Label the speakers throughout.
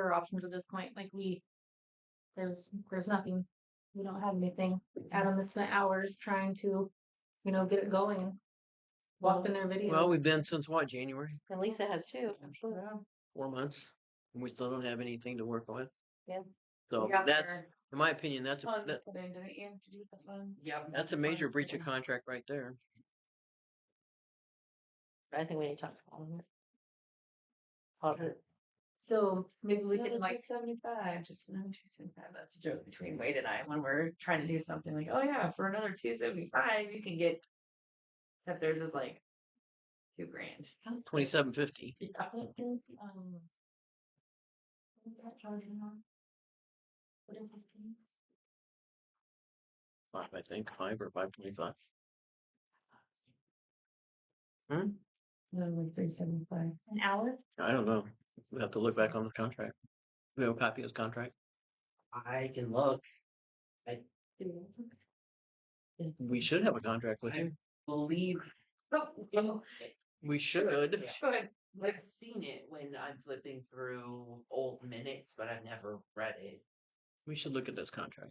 Speaker 1: for options at this point. Like we, there's, there's nothing. We don't have anything. Adam has spent hours trying to, you know, get it going. Walk in their videos.
Speaker 2: Well, we've been since what, January?
Speaker 3: And Lisa has too.
Speaker 2: Four months? And we still don't have anything to work with?
Speaker 3: Yeah.
Speaker 2: So
Speaker 4: got
Speaker 2: that's,
Speaker 4: their
Speaker 2: in my opinion, that's,
Speaker 1: Oh,
Speaker 2: a that-
Speaker 4: funds put into it, you have to do the funds. Yep.
Speaker 2: that's a major breach of contract right there.
Speaker 3: I think we need to talk to Oliver. Oliver,
Speaker 1: So maybe we
Speaker 4: Another
Speaker 1: could like,
Speaker 4: two seventy-five, just another two seventy-five, that's a joke between Wade and I, when we're trying to do something like, oh yeah, for another two seventy-five, you can get. If there's just like. Two grand.
Speaker 2: Twenty-seven fifty.
Speaker 4: What is, um. What is that charging on? What is this paying?
Speaker 2: Five, I think, five or five twenty-five. Hmm?
Speaker 4: No, like three seventy-five.
Speaker 1: an hour?
Speaker 2: I don't know. We have to look back on the contract. We have a copy of his contract.
Speaker 5: I can look.
Speaker 2: We should have a contract with him.
Speaker 5: Believe.
Speaker 2: We should.
Speaker 5: Yeah. I've seen it when I'm flipping through old minutes, but I've never read it.
Speaker 2: We should look at this contract.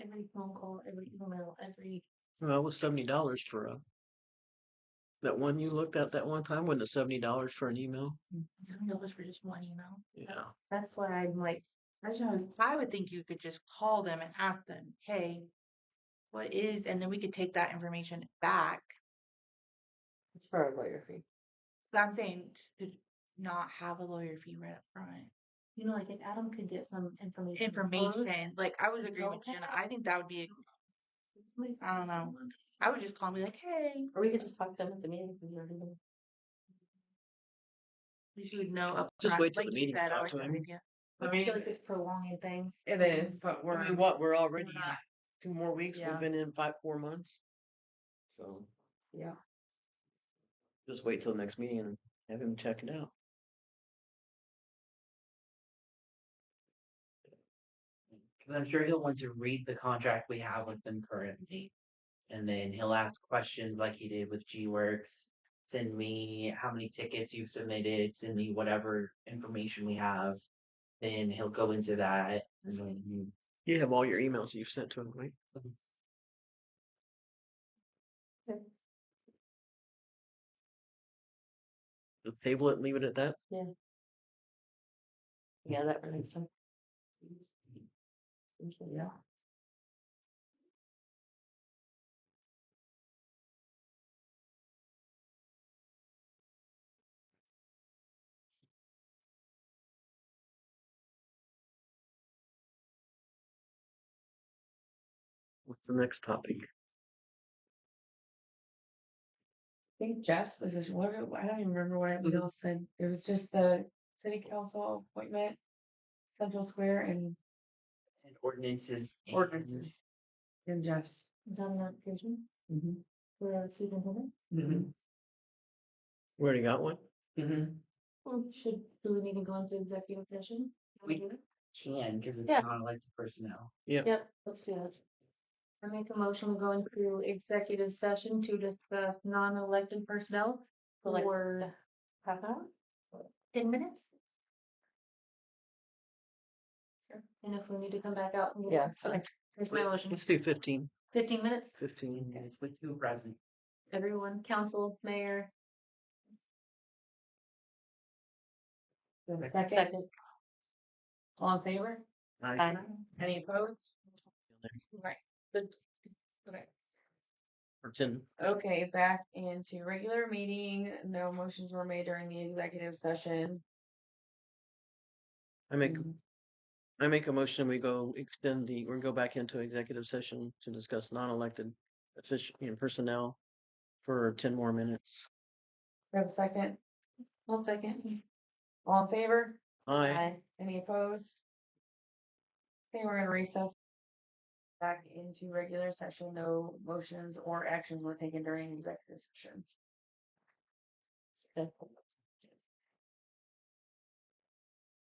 Speaker 1: Every phone call, every email, every,
Speaker 2: Well, it was seventy dollars for a. That one you looked at that one time, wasn't it seventy dollars for an email?
Speaker 1: something that was for just one email.
Speaker 2: Yeah.
Speaker 6: That's why I'm like, I just was- I would think you could just call them and ask them, hey, what is, and then we could take that information back.
Speaker 3: it's for a lawyer fee.
Speaker 6: But I'm saying to not have a lawyer fee right up front.
Speaker 1: You know, like if Adam could get some information. first,
Speaker 6: Information, like I was agreeing with
Speaker 1: Okay.
Speaker 6: Jenna. I think that would be,
Speaker 1: somebody's
Speaker 6: I don't know.
Speaker 1: someone-
Speaker 6: I would just call and be like, hey,
Speaker 3: Or we could just talk to them at the meeting. 'cause they're doing-
Speaker 6: we should know
Speaker 2: Just
Speaker 6: upfront,
Speaker 2: wait till
Speaker 6: like
Speaker 2: the
Speaker 6: you
Speaker 2: meeting
Speaker 6: said, I
Speaker 2: starts,
Speaker 6: like that
Speaker 2: right?
Speaker 6: idea.
Speaker 1: I feel like it's prolonging things.
Speaker 4: It is, but
Speaker 2: I
Speaker 4: we're.
Speaker 2: mean, what, we're already
Speaker 4: not-
Speaker 2: two more weeks,
Speaker 4: Yeah.
Speaker 2: we've been in five, four months. So.
Speaker 4: Yeah.
Speaker 2: Just wait till the next meeting and have him check it out.
Speaker 5: Cause I'm sure he'll want to read the contract we have with them currently. And then he'll ask questions like he did with G Works. Send me how many tickets you've submitted, send me whatever information we have. Then he'll go into that. and then-
Speaker 2: You have all your emails you've sent to him, right? Just table it and leave it at that?
Speaker 3: Yeah, that for next time. Yeah.
Speaker 2: What's the next topic?
Speaker 4: I think Jeff's was just what are- I don't even remember what
Speaker 3: Mm-hmm.
Speaker 4: we all said. It was just the city council appointment, Central Square, and
Speaker 5: And ordinances. and-
Speaker 4: ordinances. And Mm-hmm. Jeff's.
Speaker 1: Is that an application for a superintendent?
Speaker 5: Mhm.
Speaker 2: We already got one?
Speaker 5: Mhm.
Speaker 1: Or should, do we need to go into executive session?
Speaker 5: We- Can, cause it's
Speaker 3: Yeah.
Speaker 5: not elected personnel.
Speaker 3: Yep, let's do that.
Speaker 1: I make a motion to go into executive session to discuss non-elected personnel
Speaker 3: For like
Speaker 1: for
Speaker 3: half
Speaker 2: Uh-huh.
Speaker 3: an hour?
Speaker 1: ten minutes. And if we need to come back out. we-
Speaker 3: Yeah, it's
Speaker 1: Okay, here's my motion.
Speaker 2: Let's do fifteen.
Speaker 1: Fifteen minutes,
Speaker 2: Fifteen.
Speaker 5: And it's with two present.
Speaker 1: everyone, council, mayor.
Speaker 3: Second.
Speaker 1: All in favor?
Speaker 3: Aye.
Speaker 4: Any opposed?
Speaker 6: Right.
Speaker 4: Okay.
Speaker 2: Or ten.
Speaker 4: Okay, back into regular meeting. No motions were made during the executive session.
Speaker 2: I make, I make a motion, we go extend the, or go back into executive session to discuss non-elected official, you know, personnel for ten more minutes.
Speaker 4: We have a second.
Speaker 1: One second.
Speaker 4: All in favor?
Speaker 2: Aye.
Speaker 4: Any opposed? Okay, we're in recess. Back into regular session, no motions or actions were taken during executive session.
Speaker 3: Okay.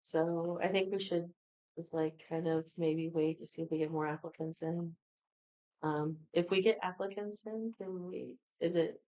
Speaker 3: So I think we should just, like kind of maybe wait to see if we get more applicants in. Um, if we get applicants in, can we, is it